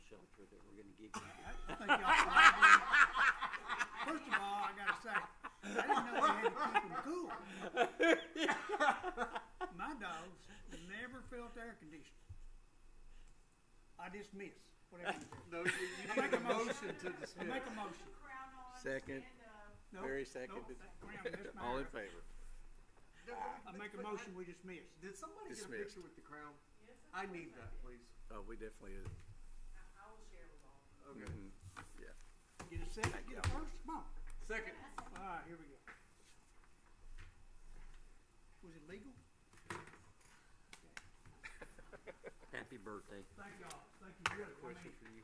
gig. I, I think y'all probably, first of all, I gotta say, I didn't know they had to keep them cool. My dogs never felt air conditioning. I dismiss, whatever you do. No, you, you Make need a a motion to Make dismiss. a motion. Crown on. Second. and, uh, No, Very no, seconded. Graham, that's my- All in favor? I make a motion, we dismiss. Did somebody get a Dismissed. picture with the crown? yes, sir. I need that, please. Oh, we definitely is. I I will share with all. of you. Okay. Mhm. Get a second, get a first, come on. Second. All right, here we go. Was it legal? Happy birthday. Thank y'all, thank you, really, I mean, Question for you.